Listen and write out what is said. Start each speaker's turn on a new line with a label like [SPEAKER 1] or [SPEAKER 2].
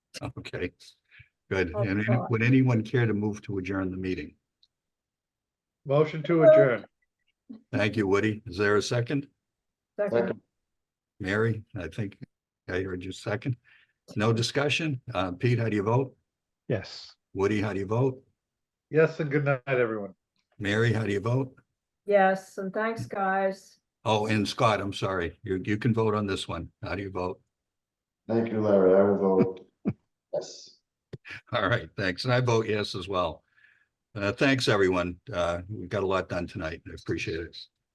[SPEAKER 1] Okay, good.
[SPEAKER 2] Oh,
[SPEAKER 1] And any-
[SPEAKER 2] God.
[SPEAKER 1] would anyone care to move to adjourn the meeting?
[SPEAKER 3] Motion to adjourn.
[SPEAKER 1] Thank you, Woody. Is there a second?
[SPEAKER 2] Second.
[SPEAKER 1] Mary, I think I heard you second. No discussion? Uh, Pete, how do you vote?
[SPEAKER 3] Yes.
[SPEAKER 1] Woody, how do you vote?
[SPEAKER 3] Yes, and good night, everyone.
[SPEAKER 1] Mary, how do you vote?
[SPEAKER 2] Yes, and thanks, guys.
[SPEAKER 1] Oh, and Scott, I'm sorry. You, you can vote on this one. How do you vote?
[SPEAKER 4] Thank you, Larry. I will vote yes.
[SPEAKER 1] All right, thanks. And I vote yes as well. Uh, thanks, everyone. Uh, we've got a lot done tonight. I appreciate it.